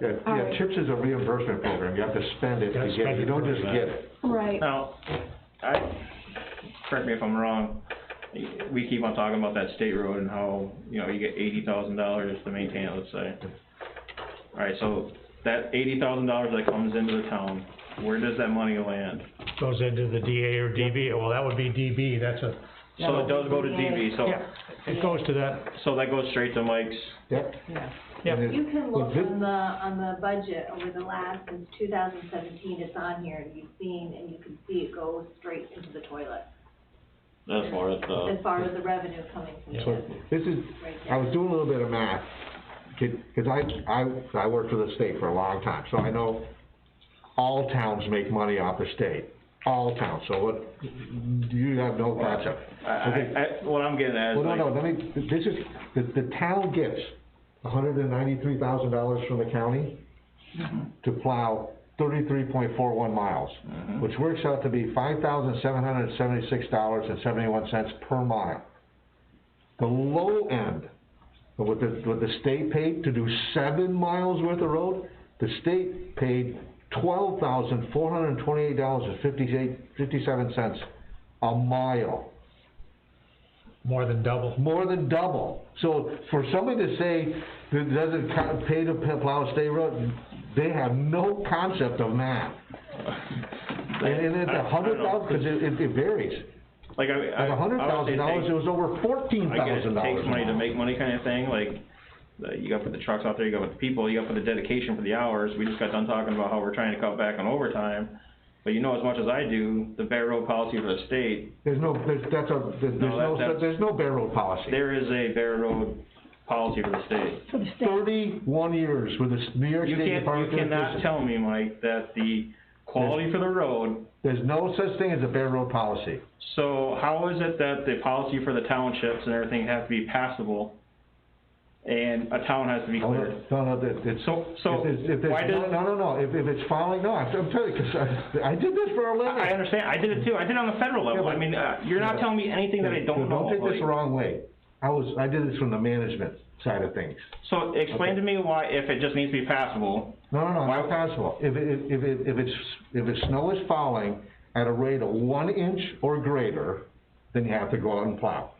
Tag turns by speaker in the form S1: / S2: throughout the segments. S1: Yeah,
S2: All
S1: yeah,
S2: right.
S1: CHIPS is a reimbursement program, you have to spend it
S3: You have
S1: to
S3: to
S1: get,
S3: spend
S1: it. you
S3: it
S1: don't
S3: to
S1: just
S3: get
S1: get
S3: it.
S1: it.
S2: Right,
S4: Now, I, correct me if I'm wrong, we keep on talking about that state road and how, you know, you get eighty thousand dollars to maintain it, let's say. Alright, so that eighty thousand dollars that comes into the town, where does that money land?
S3: Goes into the DA or DB, well, that would be DB, that's a,
S4: So it does go to DB, so,
S3: yeah, it goes to that,
S4: so that goes straight to Mike's,
S1: Yep.
S5: Yeah.
S3: Yep.
S1: And it-
S2: you can
S1: well,
S2: look
S1: this-
S2: on the, on the budget over the last, since two thousand seventeen, it's on here, and you've seen, and you can see it go straight into the toilet,
S4: as far as
S2: as
S4: the,
S2: far as the revenue coming from
S1: So,
S2: this.
S1: this is, I was doing a little bit of math, kid, cause I, I, I worked for the state for a long time, so I know all towns make money off the state, all towns, so what, you have no concept.
S4: I, I, I- what I'm getting at is
S1: Well, no,
S4: like,
S1: no, let me, this is, the, the town gets hundred and ninety-three thousand dollars from the county to plow thirty-three point four one miles, which works out to be five thousand seven hundred and seventy-six dollars and seventy-one cents per mile. The low end, of what the, what the state paid to do seven miles worth of road, the state paid twelve thousand four hundred and twenty-eight dollars and fifty-eight, fifty-seven cents a mile
S3: more than double.
S1: more than double. So for somebody to say that it doesn't co- pay to plow a state road, they have no concept of math. And, and it's
S4: I- I
S1: a
S4: don't
S1: hundred
S4: know,
S1: thousand, cause it, it- it varies.
S4: like, I, I.
S1: At a hundred
S4: I would say
S1: thousand dollars,
S4: take-
S1: it was over fourteen
S4: I get it,
S1: thousand
S4: it
S1: dollars.
S4: takes money to make money kind of thing, like, the- you gotta put the trucks out there, you gotta put the people, you gotta put the dedication for the hours, we just got done talking about how we're trying to cut back on overtime, but you know as much as I do, the bare road policy for the state,
S1: There's no, there's, that's a, there's there's
S4: No,
S1: no,
S4: that- that's-
S1: there's no bare road policy.
S4: there is a bare road policy for the state.
S5: For the state,
S1: Thirty-one years with the s- New York
S4: You
S1: State
S4: can't,
S1: Department
S4: you
S1: of
S4: cannot
S1: Transportation.
S4: tell me, Mike, that the quality for the road,
S1: There's no such thing as a bare road policy.
S4: so how is it that the policy for the townships and everything have to be passable, and a town has to be
S1: No,
S4: cleared?
S1: No, no, that- it's.
S4: So- so
S1: If it's, if
S4: why
S1: it's, no,
S4: does-
S1: no, no, no, if, if it's following, no, I'm, I'm telling you, cause I, I did this for a living.
S4: I understand, I did it too, I did it on the federal level,
S1: Yeah, but-
S4: I mean, uh, you're
S1: Yeah,
S4: not
S1: but-
S4: telling me anything that I don't know.
S1: Don't take this
S4: like-
S1: the wrong way. I was, I did this from the management side of things.
S4: So explain to me why, if it just needs to be passable,
S1: No, no, no,
S4: Why-
S1: not possible. If it, if it, if it's, if it's snow is falling at a rate of one inch or greater, then you have to go out and plow.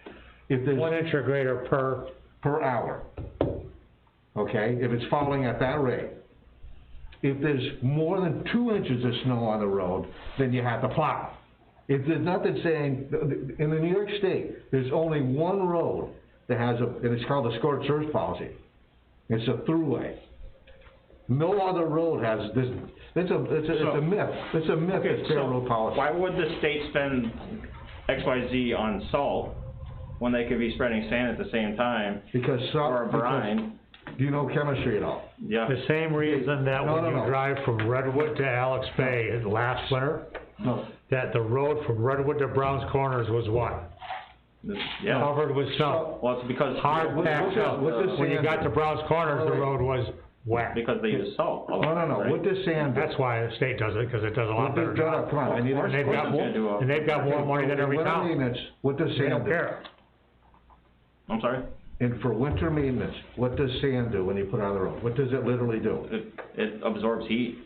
S1: If
S3: One
S1: there's,
S3: inch or greater per,
S1: per hour. Okay, if it's falling at that rate. If there's more than two inches of snow on the road, then you have to plow. If there's nothing saying, in the New York State, there's only one road that has a, and it's called the scorched earth policy. It's a throughway. No other road has this, it's a, it's a, it's
S4: So-
S1: a myth, it's a myth,
S4: okay,
S1: it's fair
S4: so
S1: road policy.
S4: why would the state spend X, Y, Z on salt when they could be spreading sand at the same time,
S1: Because
S4: or
S1: some,
S4: a
S1: because,
S4: brine?
S1: do you know chemistry at all?
S4: Yeah,
S3: the same reason that
S1: No,
S3: when
S1: no,
S3: you
S1: no.
S3: drive from Redwood to Alex Bay last winter,
S1: No.
S3: that the road from Redwood to Browns Corners was what?
S4: yeah,
S3: Covered with snow,
S4: well, it's because.
S3: hard packed snow.
S1: what does-
S3: When you got to Browns Corners, the road was wet.
S4: Because they use salt.
S1: Oh, No, no, no, what does sand do?
S3: That's why the state does it, cause it does a lot
S1: What
S3: better
S1: does- no, no,
S3: job.
S1: Come on, I need
S3: And
S1: to.
S3: they've got
S4: Of course
S3: more,
S4: it's gonna do a-
S3: and they've got more money than every
S1: For winter
S3: town.
S1: maintenance, what does
S3: They
S1: sand
S3: don't
S1: do?
S3: care.
S4: I'm sorry?
S1: And for winter maintenance, what does sand do when you put it on the road? What does it literally do?
S4: It, it absorbs heat,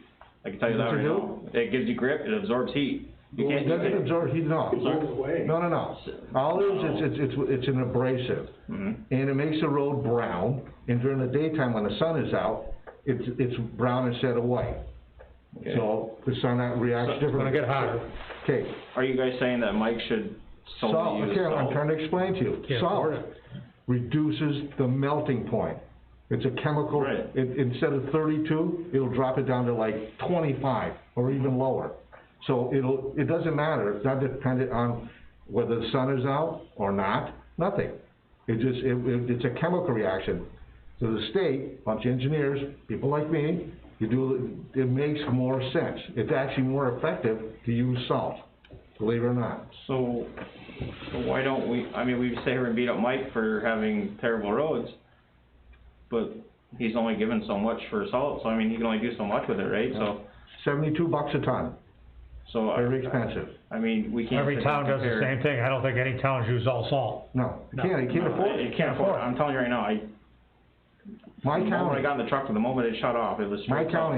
S4: I can tell you that
S1: Does it
S4: right now. It gives you grip, it absorbs heat. You
S1: Well,
S4: can't,
S1: It doesn't
S4: you
S1: absorb heat, no. No, no, no. All it is, it's, it's, it's, it's an abrasive.
S3: Mm-hmm.
S1: And it makes the road brown, and during the daytime when the sun is out, it's, it's brown instead of white.
S4: Okay.
S1: So the sun reacts
S3: It's gonna
S1: differently.
S3: get hotter.
S1: Okay,
S4: are you guys saying that Mike should
S1: Salt,
S4: solely use
S1: okay, I'm
S4: salt?
S1: trying to explain to you.
S3: Can't
S1: Salt
S3: afford it.
S1: reduces the melting point. It's a chemical,
S4: Right.
S1: it, instead of thirty-two, it'll drop it down to like twenty-five or even lower. So it'll, it doesn't matter, it's not dependent on whether the sun is out or not, nothing. It just, it, it, it's a chemical reaction. So the state, bunch of engineers, people like me, you do, it makes more sense. It's actually more effective to use salt, believe it or not.
S4: So, so why don't we, I mean, we sit here and beat up Mike for having terrible roads, but he's only given so much for salt, so I mean, he can only do so much with it, right? So,
S1: Seventy-two bucks a ton,
S4: so,
S1: very
S4: I,
S1: expensive.
S4: I mean, we can't.
S3: Every
S4: sit here and
S3: town does the
S4: compare.
S3: same thing, I don't think any towns use all salt.
S1: No, you
S3: No.
S1: can't, you can't
S4: No,
S1: afford
S4: You
S1: it.
S4: can't afford it, I'm telling you right now, I,
S1: My
S4: The moment I
S1: county,
S4: got in the truck, the moment it shut off, it was.
S1: my
S4: straight up.
S1: county